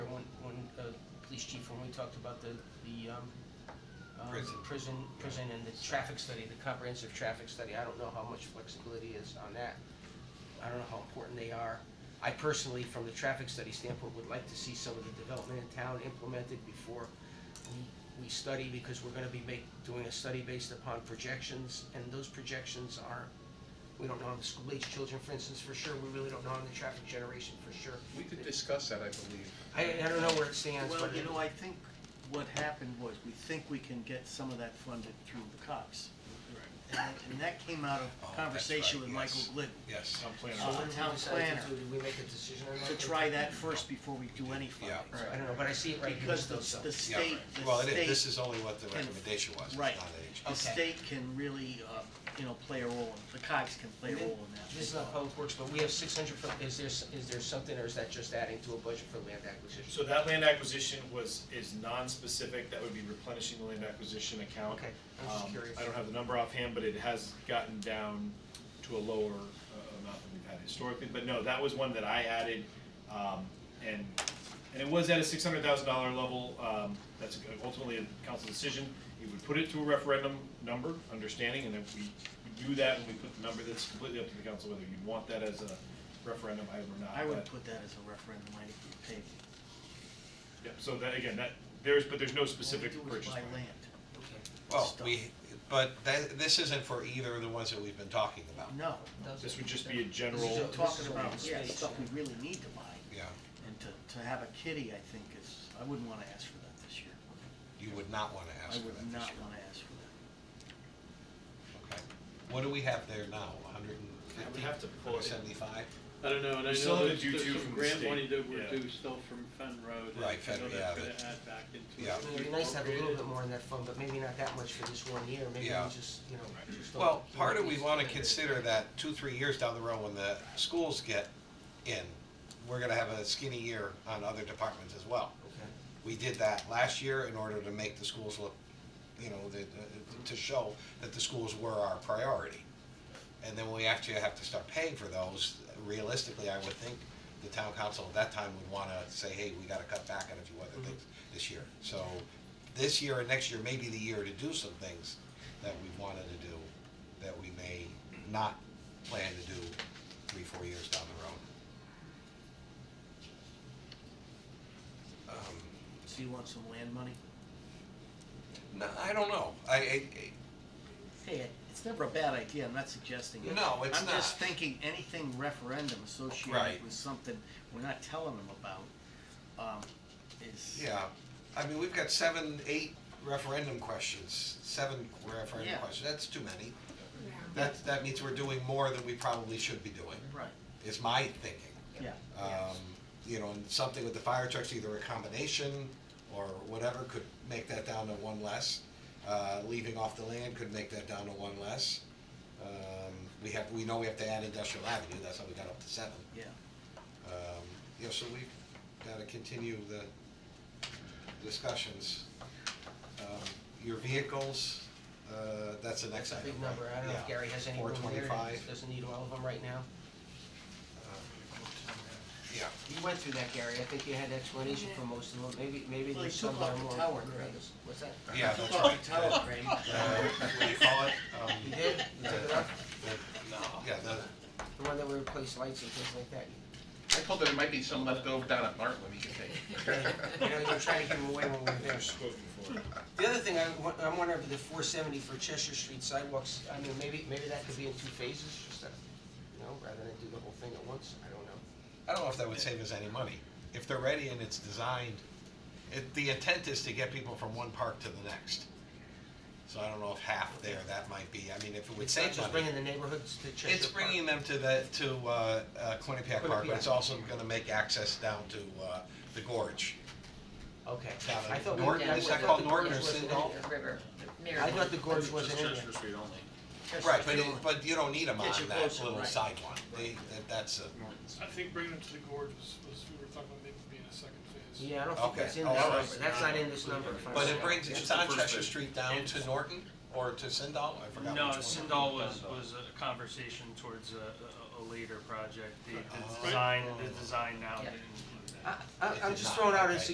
uh, police chief when we talked about the, the, um, um, Prison. prison, prison and the traffic study, the comprehensive traffic study, I don't know how much flexibility is on that. I don't know how important they are. I personally, from the traffic study standpoint, would like to see some of the development in town implemented before we, we study, because we're gonna be make, doing a study based upon projections, and those projections aren't, we don't know on the school age children, for instance, for sure, we really don't know on the traffic generation, for sure. We could discuss that, I believe. I, I don't know where it stands, Well, but you know, I think what happened was, we think we can get some of that funded through the COGS. And that- and that came out Oh, of that's conversation right, with Michael yes. Glidden. Yes. So when uh, we town decide to planner. do- do we make a decision on that? To try that first before we do any funding. Yeah. I don't know, but I see it right here, Because still the, so. the Yeah, state, right. the Well, it is, this state, is only what the can- recommendation was, it's not right. Oh, age. the Okay. state can really, uh, you know, play a role, in- the COGS can play a And then- role in that. This is not public works, but we have six hundred for, is there, s- is there something, or is that just adding to a budget for land acquisition? So that land acquisition was, is non-specific, that would be replenishing the land acquisition account. Okay, I was just Um, curious. I don't have the number offhand, but it has gotten down to a lower uh, amount than we've had historically, but no, that was one that I added. um, And, and it was at a six hundred thousand dollar level, um, that's ultimately a council decision. It would put it to a referendum number, understanding, and then we we do that and we put the number, that's completely up to the council whether you want that as a referendum item or not. I would but- put that as a referendum, I if you pay, yeah, so that, again, that, there's, but there's no specific all we do is purchase. buy plan. land. Okay, Well, Stuff. we, but that, this isn't for either of the ones that we've been talking about. No, does This it? would just be a This general, is talking all about, the yeah, space, stuff we yeah. really need to buy. Yeah, And to, to have a kitty, I think is, I wouldn't wanna ask for that this year. you would not wanna I ask for would that this year. not wanna ask for that. Okay. What do we have there now, a hundred and I would fifty? have to pull it. Seventy-five? I don't know, and I We still have know a there's, due there's to some from the grant state, money that we're yeah. due still from Fen Road. and Right, I Fen- know yeah, that's gonna but- add back into yeah. it. It'd be nice to have a little bit more in that fund, but maybe not that much for this one year, maybe we Yeah. just, you know, just. don't- Well, part of we wanna consider that two, three years down the road when the schools get in, we're gonna have a skinny year on other departments as well. Okay. We did that last year in order to make the schools look, you know, the- the- to show that the schools were our priority. And then we actually have to start paying for those. Realistically, I would think the town council at that time would wanna say, hey, we gotta cut back on a few other things this year. So this year and next year may be the year to do some things that we wanted to do, that we may not plan to do three, four years down the road. Um, So you want some land money? No, I don't know. I, I, Hey, it- it's never a bad idea, I'm not suggesting it. No, it's I'm just not. thinking, anything referendum associated Right. with something we're not telling them about, um, is. yeah, I mean, we've got seven, eight referendum questions, seven referendum Yeah. questions, that's too many. That, that means we're doing more than we probably should be doing, Right, is my thinking. yeah. Um, you know, and something with the fire trucks, either a combination or whatever, could make that down to one less. Uh, leaving off the land could make that down to one less. Um, we have, we know we have to add industrial avenue, that's how we got up to seven. Yeah, Um, you know, so we've gotta continue the discussions. Um, your vehicles, uh, that's the next That's a item, big right? number, I don't know if Yeah. Gary has any room there, he 425. doesn't need all of them right now. Yeah, You went through that, Gary, I think you had explanation for most of them, maybe, maybe Well, there's he took some that are off the more. tower crane. What's that? yeah, Took that's off right. the tower crane. Uh, what do you call it? Um, You did, you took it off, the- Yeah, the, the one that we replaced lights and things like that, I told her there might be some left over down at Bartlett we could take. you know, you're trying to give them away when we're there. spoken for. The other thing, I, wa- I'm wondering if the four seventy for Cheshire Street sidewalks, I mean, maybe, maybe that could be in two phases, just that, you know, rather than do the whole thing at once, I don't know. I don't know if that would save us any money. If they're ready and it's designed, it, the intent is to get people from one park to the next. So I don't know if half there, that might be, I mean, if it would It's not save money. just bringing the neighborhoods to Cheshire Park. It's bringing them to the, to, uh, uh, Quinnipiac Park, but it's Quinnipiac. also gonna make access down to, uh, the gorge. Okay, down in I thought we, Norton, I is that thought called the Norton gorge or wasn't in Sindall? there. River, I thought the gorge wasn't in there. Street only. Right, but, it- but you don't need them on Gets you that closer, little right. side one, they, that, that's a, I think bringing it to the gorge was, was, we were talking about maybe being a second phase. Yeah, I don't think Okay. that's in Oh, that, all right. number. that's not in this number, if I'm but it right. brings, Yeah. it's on first Cheshire bit. Street down to Norton or to Sindall, I forgot No, which one. Sindal was, was a conversation towards a, a, a later project. The, Oh. the design, the design now Yeah. didn't include that. I, I, It I'm did just not, throwing out a okay.